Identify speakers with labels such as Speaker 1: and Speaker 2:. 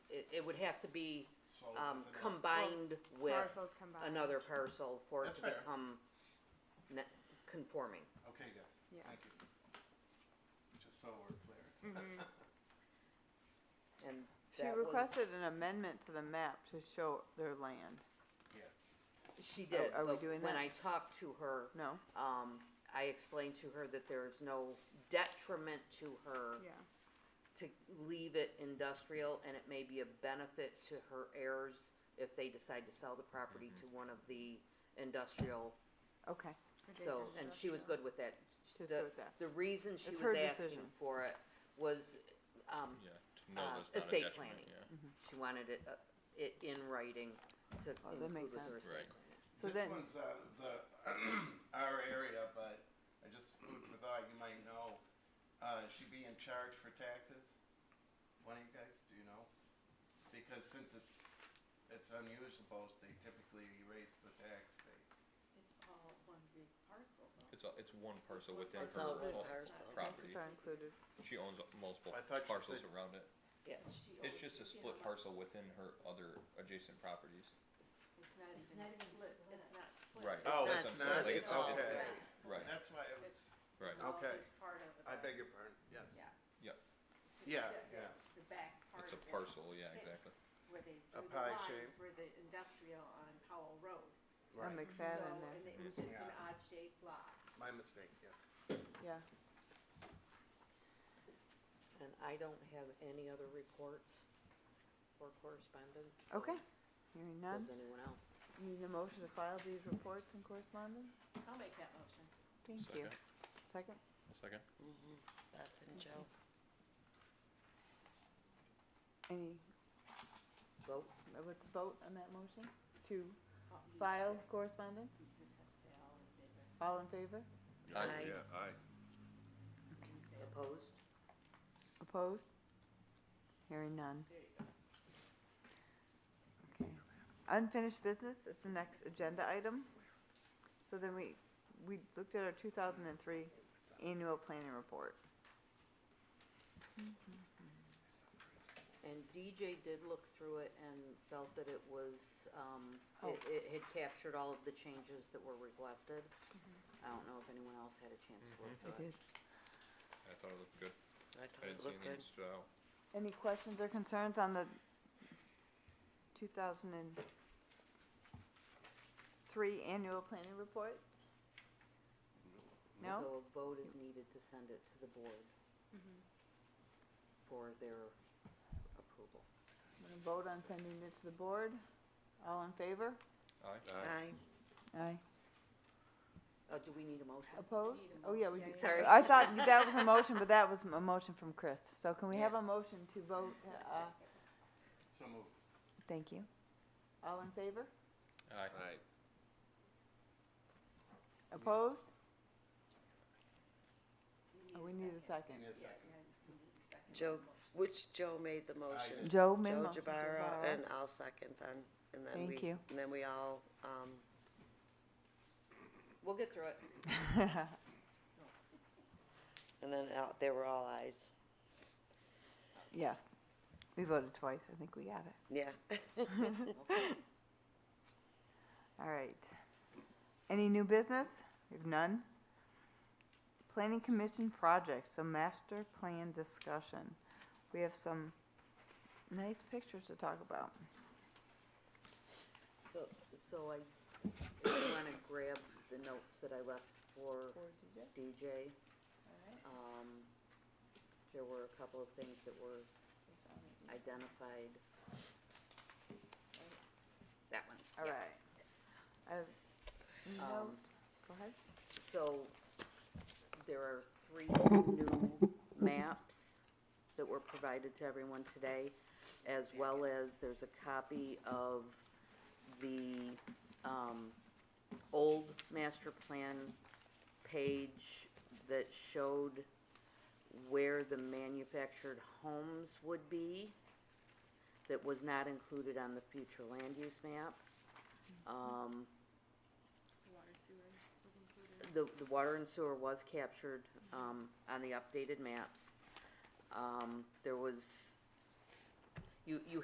Speaker 1: it would have to be,
Speaker 2: So
Speaker 1: um,
Speaker 2: within that-
Speaker 1: combined with
Speaker 3: Parcels combined.
Speaker 1: another parcel for it
Speaker 2: That's
Speaker 1: to
Speaker 2: fair.
Speaker 1: become ne- conforming.
Speaker 2: Okay, guys,
Speaker 3: Yeah.
Speaker 2: thank you. Just so we're clear.
Speaker 3: Mhm.
Speaker 1: And
Speaker 4: She
Speaker 1: that was-
Speaker 4: requested an amendment to the map to show their land.
Speaker 1: She did,
Speaker 4: are we
Speaker 1: but
Speaker 4: doing
Speaker 1: when
Speaker 4: that?
Speaker 1: I talked to her,
Speaker 4: No?
Speaker 1: um, I explained to her that there is no detriment to her
Speaker 3: Yeah.
Speaker 1: to leave it industrial, and it may be a benefit to her heirs if they decide to sell the property to
Speaker 2: Mm-hmm.
Speaker 1: one of the industrial,
Speaker 4: Okay.
Speaker 1: so, and she was good with that.
Speaker 4: She was
Speaker 1: The-
Speaker 4: good with that.
Speaker 1: The reason she
Speaker 4: It's
Speaker 1: was
Speaker 4: her
Speaker 1: asking
Speaker 4: decision.
Speaker 1: for it was, um,
Speaker 5: Yeah, to know
Speaker 1: uh,
Speaker 5: that's not a
Speaker 1: estate
Speaker 5: detriment,
Speaker 1: planning.
Speaker 5: yeah.
Speaker 1: she wanted it, uh, it in writing to
Speaker 4: Mm-hmm. Oh, that
Speaker 1: include
Speaker 4: makes
Speaker 1: with her
Speaker 4: sense.
Speaker 1: estate
Speaker 5: Right.
Speaker 1: planning.
Speaker 4: So
Speaker 2: this
Speaker 4: then,
Speaker 2: one's uh, the our area, but I just food for thought. You might know. Uh, she be in charge for taxes. One of you guys, do you know? Because since it's it's unusable, they typically erase the tax base.
Speaker 6: It's all one big parcel though.
Speaker 5: It's, a- it's one parcel Oh, within
Speaker 6: It's
Speaker 5: her
Speaker 6: all one
Speaker 5: whole
Speaker 6: parcel.
Speaker 5: property.
Speaker 4: these are included.
Speaker 5: She owns multiple
Speaker 2: I thought you
Speaker 5: parcels
Speaker 2: said-
Speaker 5: around it.
Speaker 1: Yeah,
Speaker 6: She
Speaker 5: It's
Speaker 6: owns-
Speaker 5: just a
Speaker 6: you
Speaker 5: split
Speaker 6: know,
Speaker 5: parcel within her other adjacent properties.
Speaker 6: It's not even
Speaker 7: not even
Speaker 6: split, it's
Speaker 7: split.
Speaker 6: not split.
Speaker 5: Right.
Speaker 2: Oh,
Speaker 5: that's
Speaker 2: it's
Speaker 5: what I'm saying,
Speaker 2: not,
Speaker 5: like,
Speaker 2: it's
Speaker 5: all-
Speaker 2: okay.
Speaker 5: Right,
Speaker 2: That's why it was.
Speaker 5: right.
Speaker 6: It's all
Speaker 2: Okay.
Speaker 6: just part of it.
Speaker 2: I beg your pardon. Yes.
Speaker 6: Yeah.
Speaker 5: Yep.
Speaker 6: It's just
Speaker 2: Yeah,
Speaker 6: the- the-
Speaker 2: yeah.
Speaker 6: The back part
Speaker 5: It's
Speaker 6: of
Speaker 5: a
Speaker 6: it.
Speaker 5: parcel, yeah,
Speaker 6: Okay.
Speaker 5: exactly.
Speaker 6: Where they
Speaker 2: A
Speaker 6: drew the
Speaker 2: pie
Speaker 6: line
Speaker 2: shape.
Speaker 6: for the industrial on Powell Road.
Speaker 4: Or
Speaker 2: Right.
Speaker 6: So,
Speaker 4: McFadden
Speaker 6: and
Speaker 4: there,
Speaker 6: it was just an
Speaker 2: Yeah.
Speaker 6: odd shaped lot.
Speaker 2: My mistake. Yes.
Speaker 4: yeah.
Speaker 1: and I don't have any other reports or correspondence. so
Speaker 4: Okay. Hearing none.
Speaker 1: Does anyone else?
Speaker 4: Need a motion to file these reports and correspondence?
Speaker 6: I'll make that motion.
Speaker 4: Thank you.
Speaker 5: Second.
Speaker 4: Second?
Speaker 5: A second?
Speaker 7: Beth and Joe.
Speaker 4: Any,
Speaker 1: Vote?
Speaker 4: let's vote on that motion to
Speaker 6: Oh, you
Speaker 4: file
Speaker 6: said-
Speaker 4: correspondence.
Speaker 6: You just have to say all in favor.
Speaker 4: All in favor?
Speaker 7: Aye.
Speaker 2: aye.
Speaker 6: You say it.
Speaker 1: Opposed?
Speaker 4: Opposed? Hearing none.
Speaker 6: There you go.
Speaker 4: Okay. Unfinished business, it's the next agenda item. So then we, we looked at our two thousand and three annual planning report.
Speaker 1: And DJ did look through it and felt that it was, um,
Speaker 4: Oh.
Speaker 1: it, it had captured all of the changes that were requested.
Speaker 4: Mm-hmm.
Speaker 1: I don't know if anyone else had a chance to
Speaker 5: Mm-hmm.
Speaker 1: look through it.
Speaker 5: I thought it looked good.
Speaker 7: I
Speaker 5: I
Speaker 7: thought
Speaker 5: didn't
Speaker 7: it
Speaker 5: see
Speaker 7: looked
Speaker 5: anything
Speaker 7: good.
Speaker 5: that stood out.
Speaker 4: Any questions or concerns on the two thousand and three annual planning report? No?
Speaker 1: So a vote is needed to send it to the board for their approval.
Speaker 4: I'm gonna vote on sending it to the board. All in favor?
Speaker 5: Aye?
Speaker 7: Aye.
Speaker 4: Aye.
Speaker 1: Uh, do we need a motion?
Speaker 4: Opposed?
Speaker 6: Need a
Speaker 4: Oh, yeah, we
Speaker 6: motion.
Speaker 4: do.
Speaker 1: Sorry.
Speaker 4: I thought that that was a motion, but that was a motion from Chris. So can we have
Speaker 1: Yeah.
Speaker 4: a motion to vote, uh,
Speaker 2: So move.
Speaker 4: thank you. All in favor?
Speaker 5: Aye.
Speaker 2: Aye.
Speaker 4: Opposed?
Speaker 6: You
Speaker 4: Oh, We need a second.
Speaker 2: Give me a
Speaker 6: Yeah,
Speaker 2: second.
Speaker 6: yeah, you need a second.
Speaker 7: Joe,
Speaker 6: motion.
Speaker 7: which Joe made the motion?
Speaker 4: Joe made
Speaker 7: Joe
Speaker 4: motion.
Speaker 7: Jabara, and I'll second then, and then we,
Speaker 4: Thank you.
Speaker 7: and then we all, um,
Speaker 1: We'll get through it.
Speaker 4: Jabara.
Speaker 7: and then out, they were all ayes.
Speaker 4: Yes. We voted twice. I think we got it.
Speaker 7: Yeah.
Speaker 4: All right. Any new business? We have none. Planning Commission projects, so master plan discussion. We have some nice pictures to talk about.
Speaker 1: So, so I, if you wanna grab the notes that I left for DJ, um, there were a couple of things that were identified. That one.
Speaker 4: All right. I have
Speaker 1: Um,
Speaker 4: notes. Go ahead.
Speaker 1: So, there are three new maps that were provided to everyone today, as well as there's a copy of the, um, old master plan page that showed where the manufactured homes would be that was not included on the future land use map. Um,
Speaker 6: Water sewer was included.
Speaker 1: the, the water and sewer was captured, um, on the updated maps. Um, there was, you, you